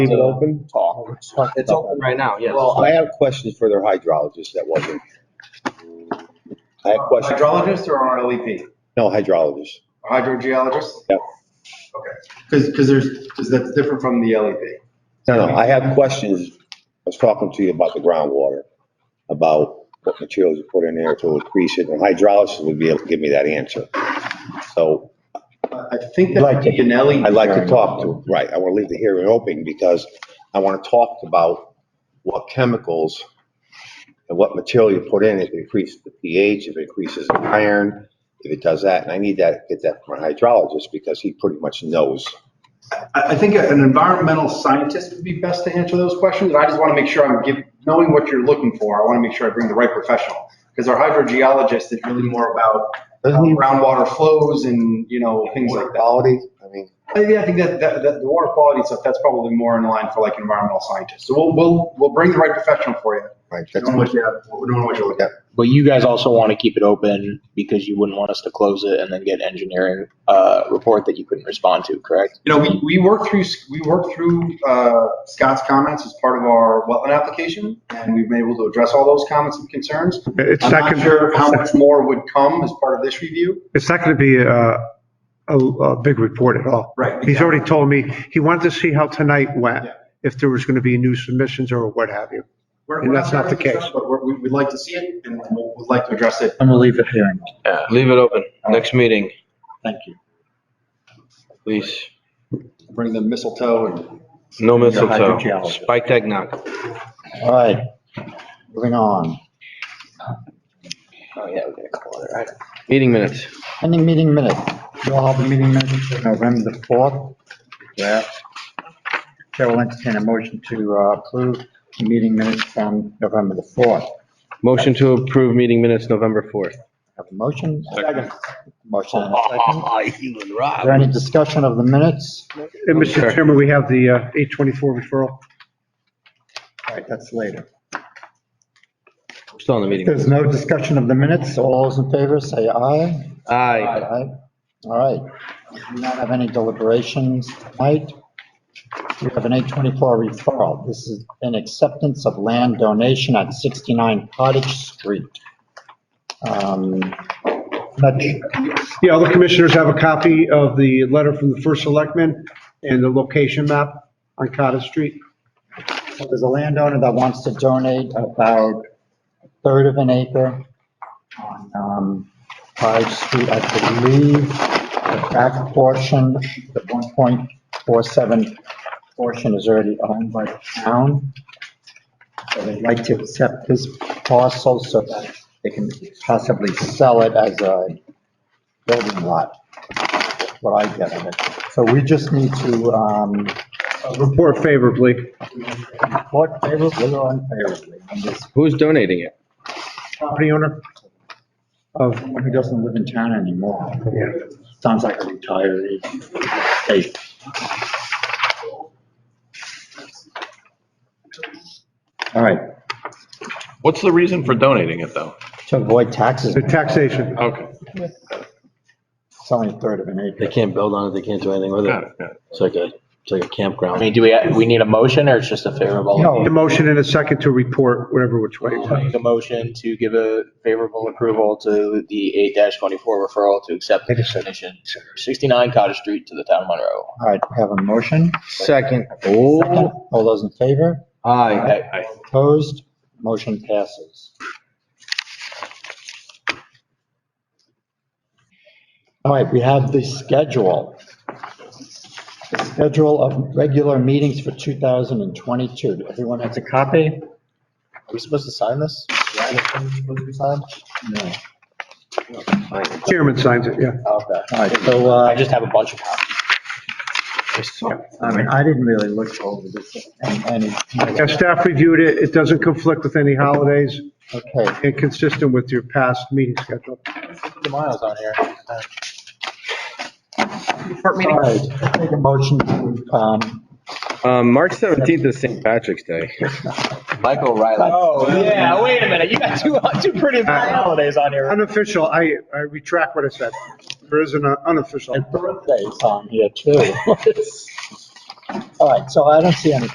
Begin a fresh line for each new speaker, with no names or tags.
Leave it
to
open?
talk.
Talk
It's
about
open right now, yes.
Well,
I have questions for their hydrologist that wasn't. I have questions.
Hydrologist or E RLEP?
No, hydrologist.
Hydrogeologist?
Yep.
Okay, because, because there's, because that's different from the E LEP.
No, no, I have questions. I was talking to you about the groundwater, about what materials you put in there to increase it, and hydrologist would be able to give me that answer. So
I I think
I'd like
that
to-
an E LEP.
I'd like to talk to, right, I want to leave the hearing open because I want to talk about what chemicals and what material you put in, if it increases the pH, if it increases the iron, if it does that, and I need that, get that from a hydrologist because he pretty much knows.
I, I think an environmental scientist would be best to answer those questions. I just want to make sure I'm giving, knowing what you're looking for, I want to make sure I bring the right professional. Because our hydrogeologist is really more about uh,
Doesn't he
groundwater flows and, you know, things like
water
that.
quality? I mean,
I think- I think that, that, that the water quality stuff, that's probably more in line for like environmental scientists. So we'll, we'll, we'll bring the right professional for you.
right,
We
that's
don't know what you have, we don't know what you're looking at.
But you guys also want to keep it open because you wouldn't want us to close it and then get engineering, uh, report that you couldn't respond to, correct?
You know, we, we work through, we work through, uh, Scott's comments as part of our wetland application, and we've been able to address all those comments and concerns.
It's
I'm
not
not
gonna-
sure how
it's not-
much more would come as part of this review.
It's not going to be a, a, a big report at all.
Right.
He's already told me, he wanted to see how tonight went,
Yeah.
if there was going to be new submissions or what have you.
We're-
and
we're
that's not the case.
But we're- we- we'd like to see it, and we- we'd like to address it.
I'm gonna leave the hearing.
Yeah, leave it open. Next meeting,
Thank you.
please.
Bring the mistletoe and.
No mistletoe.
hydrogeologist.
Spike eggnog.
All right, moving on.
Oh, yeah, we're gonna call it, right?
Meeting minutes.
Pending meeting minutes. You all have the meeting minutes for November the 4th. Yeah. Chair will entertain a motion to uh, approve the meeting minutes from November the 4th.
Motion to approve meeting minutes November 4th.
Have a motion? Motion and a second. Is there any discussion of the minutes? All
And
Sure.
Mr. Chairman, we have the uh, 824 referral.
right, that's later.
We're Still in the meeting.
There's no discussion of the minutes. All those in favor, say aye.
Aye.
All right. We do not have any deliberations tonight. We have an 824 referral. This is an acceptance of land donation at 69 Cottage Street. Um, Not su-
Yeah, all the commissioners have a copy of the letter from the first selectman and the location map on Cottage Street.
So There's a landowner that wants to donate about a third of an acre on um, Five Street, I believe, the back portion, the 1.47 portion is already owned by the town. So they'd like to accept this parcel so that they can possibly sell it as a building lot, what I get of it. So we just need to, um,
Uh, Report favorably.
Vote favorably or unfavorably on this,
Who's donating it?
Property owner of,
someone who doesn't live in town anymore.
yeah.
Sounds like a retiree. Hey, All right,
What's the reason for donating it, though?
to avoid taxes,
the taxation.
Okay.
selling a third of an acre.
They can't build on it, they can't do anything with
Got
it.
it, got it.
It's like a, it's like a
I
campground.
mean, do we, we need a motion or it's just a favorable?
No.
The motion in a second to report, whatever which way.
I'll Make a motion to give a favorable approval to the eight twenty-four referral to accept the donation, sixty-nine Cottage Street to the town of Monroe.
All right, we have a motion.
Second.
Second.
Oh,
All those in favor?
aye.
Okay.
Opposed? Motion passes. All right, we have the schedule. The schedule of regular meetings for 2022. Everyone has a copy?
Are we supposed to sign this?
No. Okay.
Chairman signs it, yeah.
All right, so,
Oh, I
uh,
just have a bunch of copies.
I mean, I didn't really look over this and, and,
Yeah, staff reviewed it. It doesn't conflict with any holidays
okay.
and consistent with your past meeting schedule.
The miles on here.
All right, Take a motion to, um,
Um, March 17th is St. Patrick's Day.
Michael Riley. Oh, yeah, wait a minute, you got two, two pretty holidays on here.
Unofficial, I, I retract what I said. There is an unofficial.
and birthdays on here too. All right, so I don't see any